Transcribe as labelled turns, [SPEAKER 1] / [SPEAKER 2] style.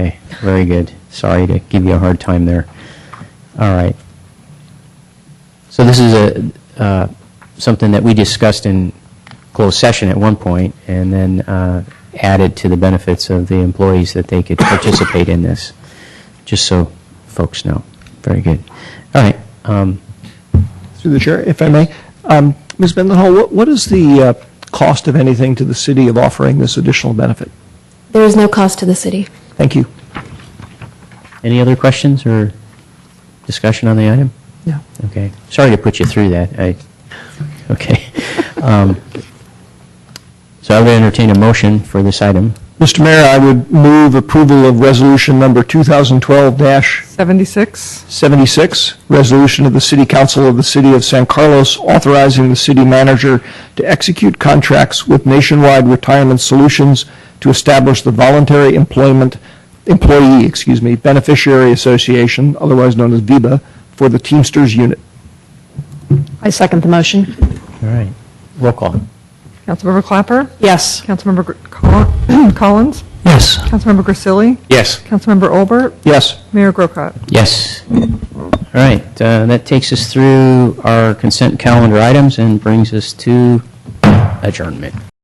[SPEAKER 1] Okay, very good. Sorry to give you a hard time there. All right. So this is a, uh, something that we discussed in closed session at one point, and then uh, added to the benefits of the employees that they could participate in this, just so folks know. Very good. All right. um,
[SPEAKER 2] Through the chair, if I may. Um, Ms. Mendenhall, what, what is the uh, cost of anything to the city of offering this additional benefit?
[SPEAKER 3] There is no cost to the city.
[SPEAKER 2] Thank you.
[SPEAKER 1] Any other questions or discussion on the item?
[SPEAKER 2] Yeah.
[SPEAKER 1] Okay. Sorry to put you through that. I, okay. Um, So I would entertain a motion for this item.
[SPEAKER 2] Mr. Mayor, I would move approval of resolution number 2012-76,
[SPEAKER 4] 76?
[SPEAKER 2] resolution of the City Council of the City of San Carlos authorizing the city manager to execute contracts with Nationwide Retirement Solutions to establish the Voluntary Employment, Employee, excuse me, Beneficiary Association, otherwise known as VIBA, for the Teamsters Unit.
[SPEAKER 5] I second the motion.
[SPEAKER 1] All right. Roll call.
[SPEAKER 4] Councilmember Clapper?
[SPEAKER 5] Yes.
[SPEAKER 4] Councilmember Gr- Col- Collins?
[SPEAKER 2] Yes.
[SPEAKER 4] Councilmember Grisilli?
[SPEAKER 1] Yes.
[SPEAKER 4] Councilmember Olbert?
[SPEAKER 2] Yes.
[SPEAKER 4] Mayor Grocott?
[SPEAKER 1] Yes. All right. uh, That takes us through our consent calendar items and brings us to adjournment.